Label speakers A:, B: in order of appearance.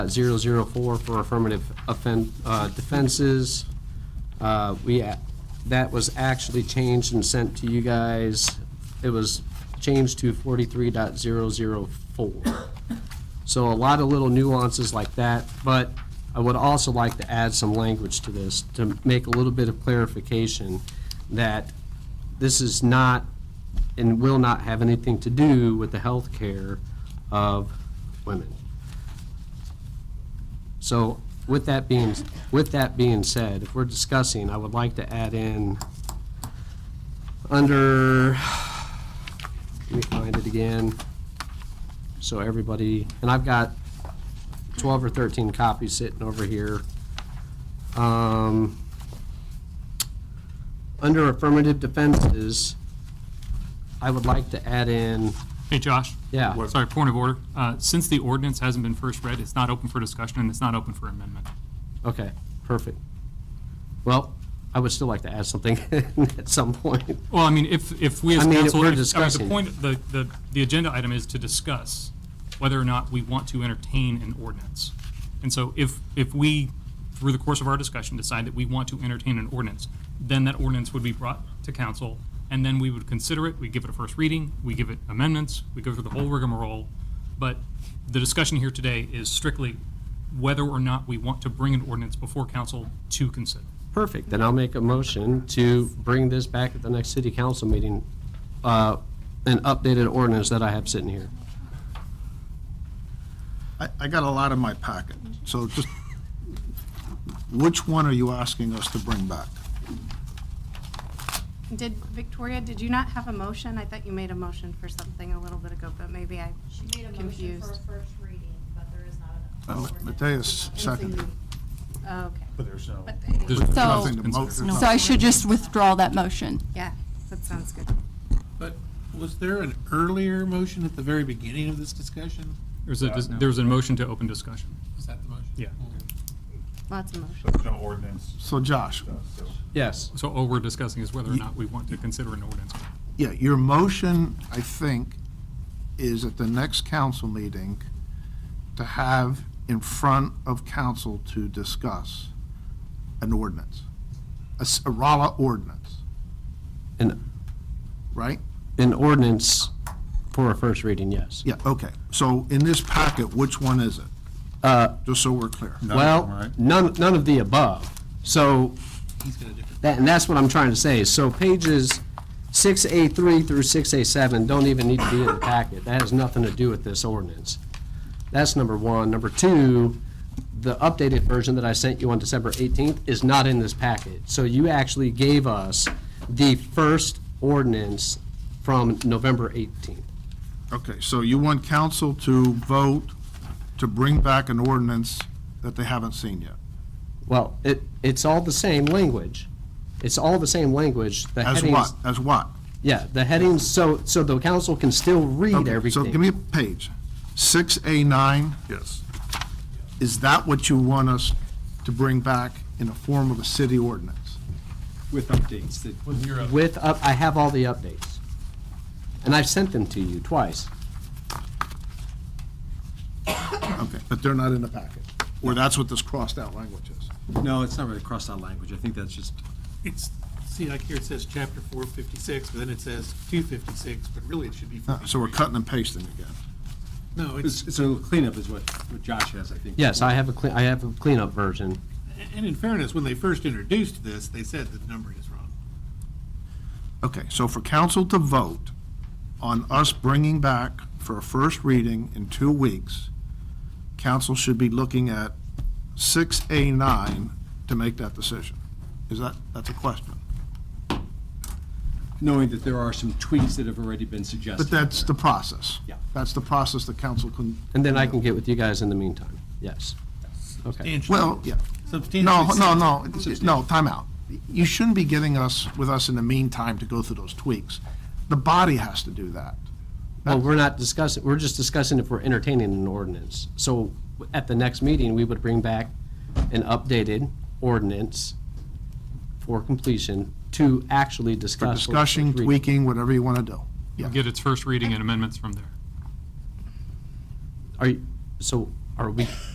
A: uh, 004 for affirmative offen- uh, defenses. Uh, We, a- that was actually changed and sent to you guys. It was changed to 43.004. So a lot of little nuances like that, but I would also like to add some language to this to make a little bit of clarification that this is not and will not have anything to do with the health care of women. So with that being, with that being said, if we're discussing, I would like to add in, under, let me find it again, so everybody, and I've got 12 or 13 copies sitting over here. Um, Under affirmative defenses, I would like to add in,
B: Hey, Josh.
A: Yeah. What?
B: Sorry, point of order. Uh, Since the ordinance hasn't been first read, it's not open for discussion and it's not open for amendment.
A: Okay, perfect. Well, I would still like to add something at some point.
B: Well, I mean, if, if we as
A: I mean, if
B: council.
A: we're
B: I mean,
A: discussing.
B: The point, the, the, the agenda item is to discuss whether or not we want to entertain an ordinance. And so if, if we, through the course of our discussion, decide that we want to entertain an ordinance, then that ordinance would be brought to council, and then we would consider it, we give it a first reading, we give it amendments, we go through the whole rigmarole. But the discussion here today is strictly whether or not we want to bring an ordinance before council to consider.
A: Perfect, then I'll make a motion to bring this back at the next city council meeting, uh, an updated ordinance that I have sitting here.
C: I, I got a lot in my packet, so just, which one are you asking us to bring back?
D: Did, Victoria, did you not have a motion? I thought you made a motion for something a little bit ago, but maybe I
E: She made a motion for a
D: confused.
E: first reading, but there is not an
C: Uh,
E: ordinance.
C: Mateus, second.
D: Oh, Okay,
F: There's no.
D: but,
E: So-
C: Nothing to
B: Oh,
C: mo- there's
E: No.
G: So I
C: nothing.
G: should just withdraw that motion.
D: yeah, that sounds good.
H: But was there an earlier motion at the very beginning of this discussion?
B: There's a, there's a motion to open discussion.
H: Is that the motion?
B: Yeah.
D: Lots of motions.
F: There's no ordinance.
C: So Josh,
A: Yes.
B: So all we're discussing is whether or not we want to consider an ordinance.
C: yeah, your motion, I think, is at the next council meeting to have in front of council to discuss an ordinance, a s- a Rolla ordinance,
A: An,
C: right?
A: an ordinance for a first reading, yes.
C: Yeah, okay. So in this packet, which one is it? Just so we're clear.
A: Well, none, none of the above. So,
H: He's got a different.
A: that, and that's what I'm trying to say. So pages 6A3 through 6A7 don't even need to be in the packet. That has nothing to do with this ordinance. That's number one. Number two, the updated version that I sent you on December 18th is not in this packet. So you actually gave us the first ordinance from November 18th.
C: Okay, so you want council to vote to bring back an ordinance that they haven't seen yet?
A: Well, it, it's all the same language. It's all the same language. The
C: As
A: headings-
C: what? As what?
A: Yeah, the headings, so, so the council can still read
C: Okay,
A: everything.
C: So give me a page. Six A nine,
F: Yes.
C: is that what you want us to bring back in the form of a city ordinance?
I: With updates that.
A: With, up, I have all the updates. And I've sent them to you twice.
C: Okay, but they're not in the packet, or that's what this crossed out language is.
I: No, it's not really crossed out language. I think that's just,
H: It's, see, like here it says chapter four fifty-six, but then it says two fifty-six, but really it should be.
C: Uh, So we're cutting and pasting again.
H: No,
I: it's,
H: it's,
I: it's a little cleanup is what, what Josh has, I think.
A: Yes, I have a clean, I have a cleanup version.
H: and in fairness, when they first introduced this, they said the numbering is wrong.
C: Okay, so for council to vote on us bringing back for a first reading in two weeks, council should be looking at 6A9 to make that decision. Is that, that's a question.
I: Knowing that there are some tweaks that have already been suggested.
C: But that's the process.
I: Yeah.
C: That's the process the council can.
A: And then I can get with you guys in the meantime. Yes. Okay.
H: Substantially-
C: Well, yeah. No,
H: Substantially.
C: no, no, no, timeout. You shouldn't be getting us, with us in the meantime to go through those tweaks. The body has to do that.
A: Well, we're not discussing, we're just discussing if we're entertaining an ordinance. So at the next meeting, we would bring back an updated ordinance for completion to actually discuss.
C: For
A: what we're
C: discussion,
A: reading.
C: tweaking, whatever you want to do. Yeah.
B: Get its first reading and amendments from there.
A: Are, you- so are we